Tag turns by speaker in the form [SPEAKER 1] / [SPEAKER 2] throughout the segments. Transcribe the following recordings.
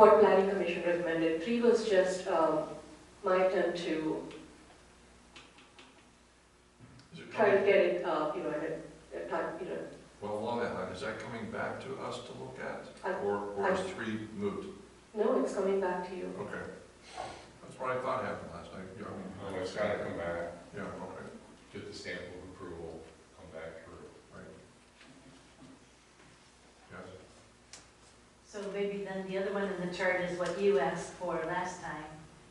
[SPEAKER 1] What planning commission recommended, three was just um, my attempt to
[SPEAKER 2] Is it
[SPEAKER 1] try to
[SPEAKER 2] coming,
[SPEAKER 1] get it, uh, you know, at a- at a time, you know,
[SPEAKER 2] well, along that line, is that coming back to us to look
[SPEAKER 1] I-
[SPEAKER 2] at? Or, or is three moved?
[SPEAKER 1] no, it's coming back to you.
[SPEAKER 2] Okay. That's what I thought happened last night. Yeah, I
[SPEAKER 3] Well,
[SPEAKER 2] mean,
[SPEAKER 3] it's gotta come back,
[SPEAKER 2] Yeah, okay,
[SPEAKER 3] get the stamp of approval, come back through.
[SPEAKER 2] right. Yes.
[SPEAKER 4] So maybe then the other one in the chart is what you asked for last time,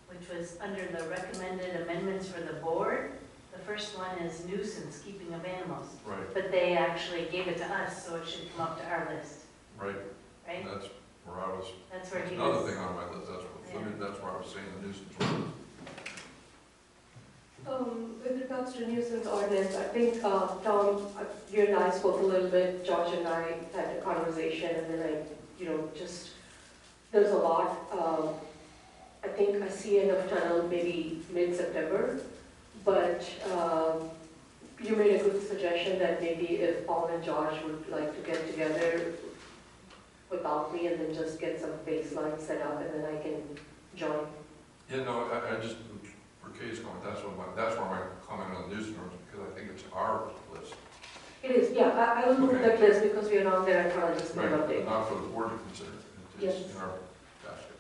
[SPEAKER 4] which was under the recommended amendments for the board. The first one is nuisance, keeping of animals,
[SPEAKER 2] Right,
[SPEAKER 4] but they actually gave it to us, so it should come up to our list,
[SPEAKER 2] right,
[SPEAKER 4] right?
[SPEAKER 2] that's where I was,
[SPEAKER 4] That's where
[SPEAKER 2] that's
[SPEAKER 4] he
[SPEAKER 2] another
[SPEAKER 4] was.
[SPEAKER 2] thing on my list, that's
[SPEAKER 4] Yeah.
[SPEAKER 2] what, that's where I was saying the nuisance ordinance.
[SPEAKER 1] Um, With regards to nuisance ordinance, I think, uh, Tom, uh, you and I spoke a little bit, George and I had a conversation, and then I, you know, just, there's a lot. um, I think I see end of tunnel maybe mid-September, but um, you made a good suggestion that maybe if Paul and George would like to get together without me and then just get some baseline set up, and then I can join.
[SPEAKER 2] Yeah, no, I, I just, for Katie's comment, that's what my, that's where my comment on the nuisance ordinance, because I think it's our list.
[SPEAKER 1] It is, yeah, I, I will move
[SPEAKER 2] Okay.
[SPEAKER 1] that list because we are not there, I thought I'll just make an
[SPEAKER 2] Right, but
[SPEAKER 1] update.
[SPEAKER 2] not for the board to consider, It- it's
[SPEAKER 1] Yes.
[SPEAKER 2] in our basket.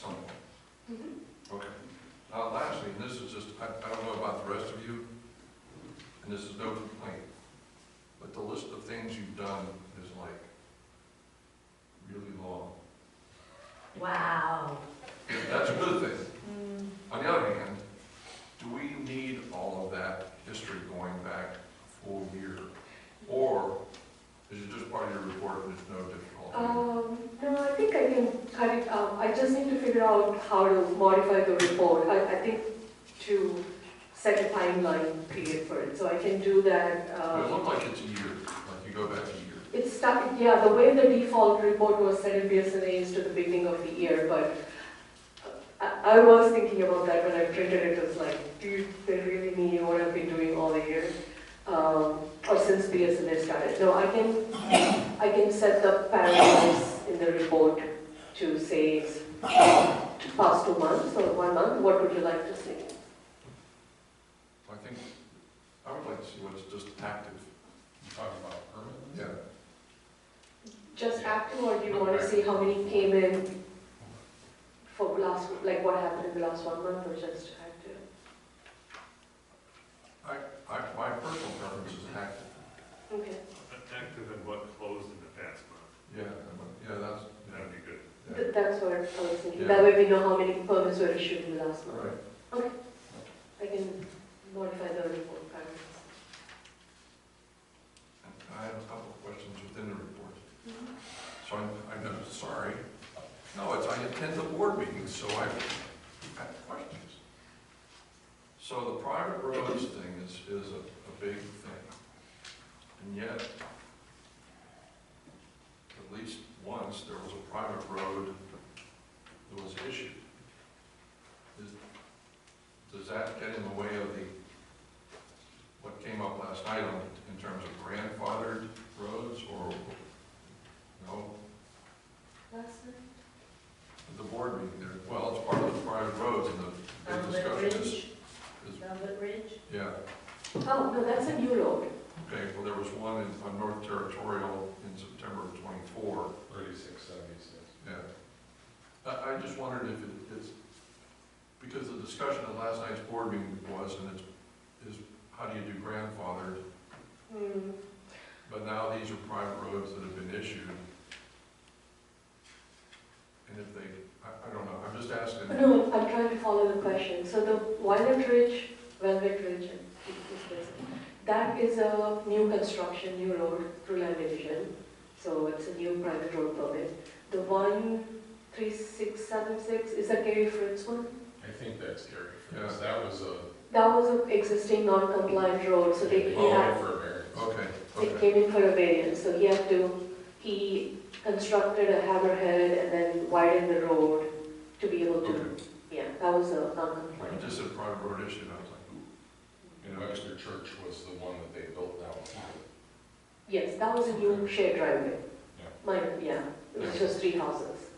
[SPEAKER 2] Something.
[SPEAKER 1] Mhm.
[SPEAKER 2] Okay. Now, lastly, and this is just, I, I don't know about the rest of you, and this is no complaint, but the list of things you've done is like really long.
[SPEAKER 4] Wow.
[SPEAKER 2] That's a good thing.
[SPEAKER 4] Hmm,
[SPEAKER 2] On the other hand, do we need all of that history going back a full year? Or is it just part of your report and it's no difficult?
[SPEAKER 1] Um, no, I think I can cut it out, I just need to figure out how to modify the report, I, I think to set a timeline period for it, so I can do that,
[SPEAKER 2] It
[SPEAKER 1] uh,
[SPEAKER 2] looked like it's a year, like you go back a year.
[SPEAKER 1] it's stuck, yeah, the way the default report was set in BSNA is to the beginning of the year, but uh, I, I was thinking about that when I printed it, it was like, do you, they really need what I've been doing all the year? Um, or since BSNA started, no, I can I can set the parameters in the report to say it's past two months or one month, what would you like to see?
[SPEAKER 2] I think, I would like to see what's just active.
[SPEAKER 3] You talking about permanent?
[SPEAKER 2] Yeah.
[SPEAKER 1] Just active or do you want to see how many came in for last, like what happened in the last one month or just active?
[SPEAKER 2] I, I, my personal preference is active.
[SPEAKER 1] Okay,
[SPEAKER 5] Active in what closed in the past month,
[SPEAKER 2] Yeah, I would- yeah, that's,
[SPEAKER 5] that'd be good.
[SPEAKER 2] yeah, yeah.
[SPEAKER 1] Th- that's what I was thinking, that way we know how many permits were issued in the last
[SPEAKER 2] All
[SPEAKER 1] month.
[SPEAKER 2] right,
[SPEAKER 1] I can modify the report parameters.
[SPEAKER 2] And I have a couple of questions within the report. So I'm, I'm not sorry. No, it's, I attend the board meetings, so I have questions. So the private roads thing is, is a, a big thing. And yet, at least once, there was a private road that was issued. Is, does that get in the way of the, what came up last night on, in terms of grandfathered roads or, no?
[SPEAKER 1] Last night?
[SPEAKER 2] At the board meeting there, well, it's part of the private roads and the big
[SPEAKER 4] Velvet
[SPEAKER 2] discussion is,
[SPEAKER 4] Ridge, Velvet Ridge?
[SPEAKER 2] yeah,
[SPEAKER 1] Oh, no, that's a new road.
[SPEAKER 2] okay, well, there was one in, on North Territorial in September of twenty-four,
[SPEAKER 3] Thirty-six seventy-six.
[SPEAKER 2] yeah. I, I just wondered if it- it's, because the discussion at last night's board meeting was, and it's, is how do you do grandfathered?
[SPEAKER 1] Hmm.
[SPEAKER 2] But now these are private roads that have been issued. And if they, I, I don't know, I'm just asking.
[SPEAKER 1] No, I'm trying to follow the question. So the Violet Ridge, Velvet Ridge, is this- that is a new construction, new road through land division. So it's a new private road permit. The one three six seven six is a Gary Fritz one.
[SPEAKER 3] I think that's Gary Fritz, that was a,
[SPEAKER 1] That was an existing non-compliant road, so they, he
[SPEAKER 3] oh,
[SPEAKER 1] had,
[SPEAKER 3] for a variance.
[SPEAKER 2] Okay,
[SPEAKER 1] it
[SPEAKER 2] okay,
[SPEAKER 1] came in for a variance, so he had to, he constructed a hammerhead and then widened the road to be able to,
[SPEAKER 2] okay.
[SPEAKER 1] yeah, that was a
[SPEAKER 2] When you
[SPEAKER 1] non-compliant.
[SPEAKER 2] just said private road issue, I was like, ooh.
[SPEAKER 3] And Webster Church was the one that they built down.
[SPEAKER 1] Yes, that was a new shared driveway.
[SPEAKER 3] Yeah.
[SPEAKER 1] Mine, yeah, it was just three houses.